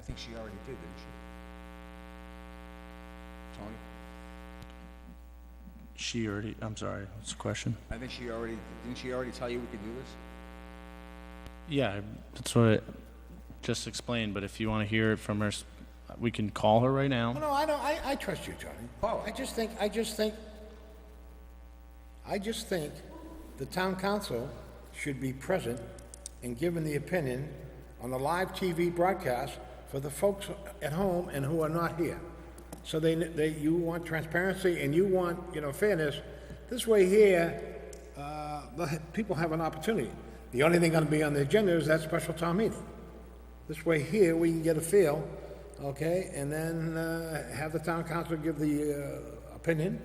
think she already did, didn't she? Tony? She already, I'm sorry, what's the question? I think she already, didn't she already tell you we could do this? Yeah, I- that's what I just explained, but if you want to hear it from her, s- we can call her right now. No, I don't, I, I trust you, Tony. Oh. I just think, I just think, I just think the town council should be present and given the opinion on the live TV broadcast for the folks at home and who are not here. So they, they, you want transparency and you want, you know, fairness. This way here, uh, the people have an opportunity. The only thing gonna be on the agenda is that special town meeting. This way here, we can get a feel, okay, and then uh, have the town council give the uh, opinion,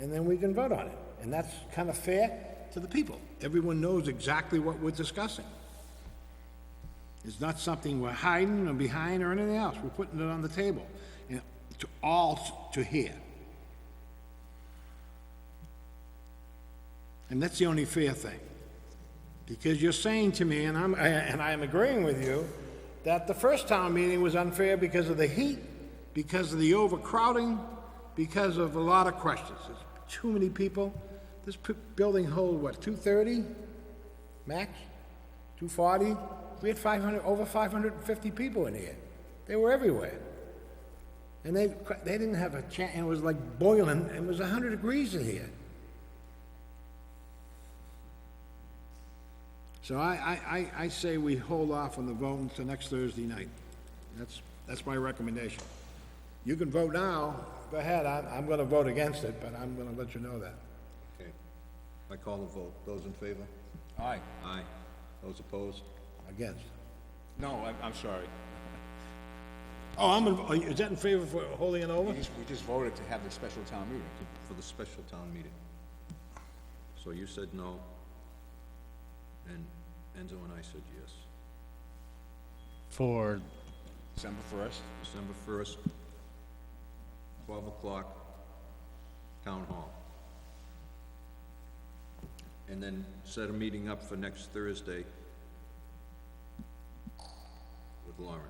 and then we can vote on it. And that's kind of fair to the people. Everyone knows exactly what we're discussing. It's not something we're hiding or behind or anything else. We're putting it on the table, and to all to hear. And that's the only fair thing. Because you're saying to me, and I'm, and I am agreeing with you, that the first town meeting was unfair because of the heat, because of the overcrowding, because of a lot of questions. There's too many people. This p- building hold, what, two thirty max? Two forty? We had five hundred, over five hundred and fifty people in here. They were everywhere. And they, they didn't have a chance, and it was like boiling, it was hundred degrees in here. So I, I, I, I say we hold off on the vote until next Thursday night. That's, that's my recommendation. You can vote now, go ahead, I'm, I'm gonna vote against it, but I'm gonna let you know that. Okay. I call the vote. Those in favor? Aye. Aye. Those opposed? Against. No, I'm, I'm sorry. Oh, I'm, in- are you- is that in favor for holding it We over? just, we just voted to have the special town meeting. For the special town meeting. So you said no, and Enzo and I said yes. For, December first, December first, twelve o'clock, town hall. And then set a meeting up for next Thursday with Lauren.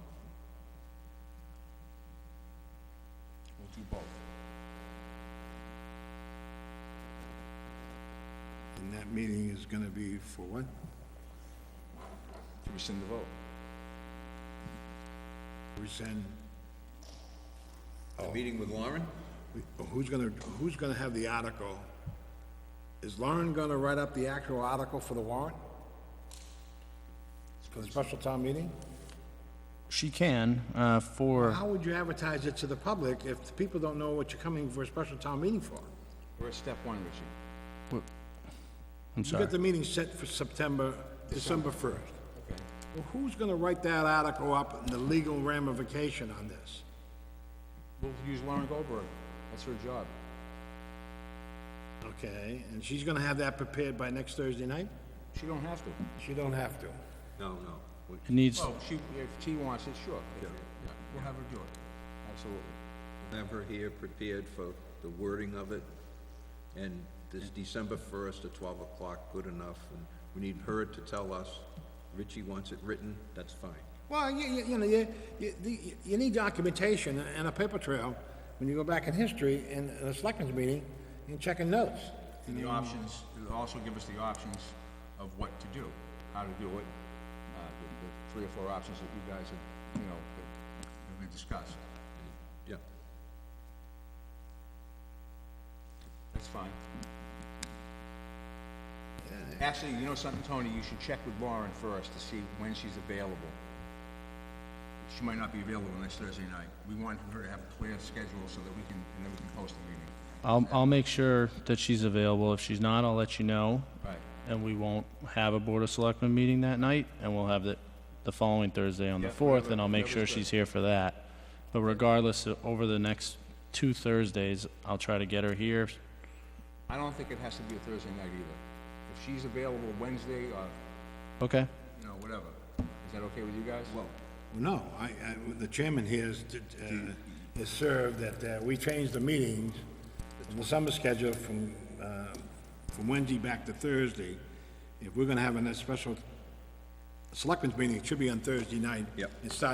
we'll do both. And that meeting is gonna be for what? To rescind the vote. Rescind, A meeting with Lauren? who's gonna, who's gonna have the article? Is Lauren gonna write up the actual article for the warrant? For the special town meeting? she can, uh, for, How would you advertise it to the public if the people don't know what you're coming for a special town meeting for? We're at step one, Richie. I'm You sorry. got the meeting set for September, December first. Well, who's gonna write that article up and the legal ramification on this? We'll use Lauren Goldberg. That's her job. Okay, and she's gonna have that prepared by next Thursday night? She don't have to. She don't have to. No, no. We- It needs, Oh. Well, she, if she wants it, sure. If- yeah, We'll have her do it. Absolutely. have her here prepared for the wording of it, and this December first at twelve o'clock, good enough, and we need her to tell us, Richie wants it written, that's fine. Well, you, you, you know, you, you, the- you need documentation and a paper trail when you go back in history and a selectmen's meeting and checking notes. And the options, it'll also give us the options of what to do, how to do it, uh, the, the three or four options that you guys have, you know, that that we discussed. Yeah, That's fine. Actually, you know something, Tony, you should check with Lauren first to see when she's available. She might not be available next Thursday night. We want her to have a clear schedule so that we can, and then we can post the meeting. I'll, I'll make sure that she's available. If she's not, I'll let you know. Right. And we won't have a Board of Selectmen meeting that night, and we'll have it the following Thursday on the Yeah, 4th, whatever- and I'll make sure whatever's she's here for that. But regardless, uh, over the next two Thursdays, I'll try to get her here. I don't think it has to be a Thursday night either. If she's available Wednesday or, Okay? you know, whatever, is that okay with you guys? Well, No, I, I, the chairman here has, uh, has served that, uh, we changed the meetings in the summer schedule from, uh, from Wednesday back to Thursday. If we're gonna have a special selectmen's meeting, it should be on Thursday night. Yep. It started